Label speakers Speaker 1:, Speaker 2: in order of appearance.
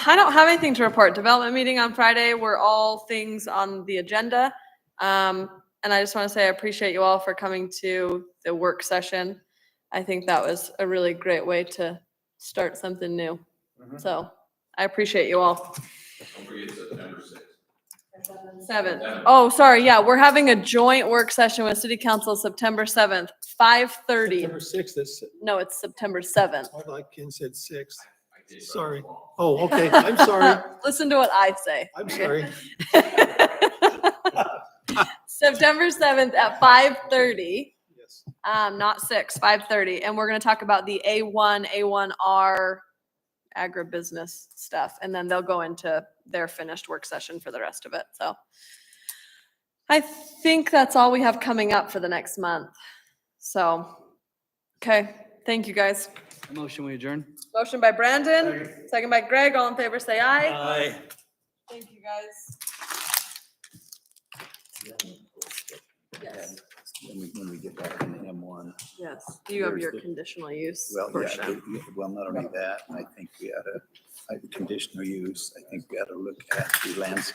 Speaker 1: I don't have anything to report. Development meeting on Friday were all things on the agenda. Um, and I just want to say I appreciate you all for coming to the work session. I think that was a really great way to start something new.
Speaker 2: Mm-hmm.
Speaker 3: Mhm.
Speaker 1: So I appreciate you all.
Speaker 4: Don't forget September sixth.
Speaker 1: Seventh. Oh, sorry. Yeah, we're having a joint work session with City Council September seventh, five thirty.
Speaker 2: September sixth, that's,
Speaker 1: No, it's September seventh.
Speaker 2: I like Ken said sixth.
Speaker 4: I did run
Speaker 2: Sorry.
Speaker 4: long.
Speaker 2: Oh, okay, I'm sorry,
Speaker 1: Listen to what I say.
Speaker 2: I'm sorry.
Speaker 1: September seventh at five thirty.
Speaker 2: Yes.
Speaker 1: Um, not six, five thirty, and we're gonna talk about the A one, A one R agribusiness stuff, and then they'll go into their finished work session for the rest of it, so. I think that's all we have coming up for the next month, so, okay, thank you guys.
Speaker 5: Motion, we adjourn?
Speaker 1: Motion by Brandon, second by Greg, all in favor, say aye. Thank you, guys. Yes,
Speaker 3: When we, when we get back in the M one,
Speaker 1: yes, you have
Speaker 3: There's
Speaker 1: your
Speaker 3: the-
Speaker 1: conditional use
Speaker 3: well, yeah,
Speaker 1: portion.
Speaker 3: it- it- well, not only that, I think we ought to, I conditional use, I think we ought to look at the landscape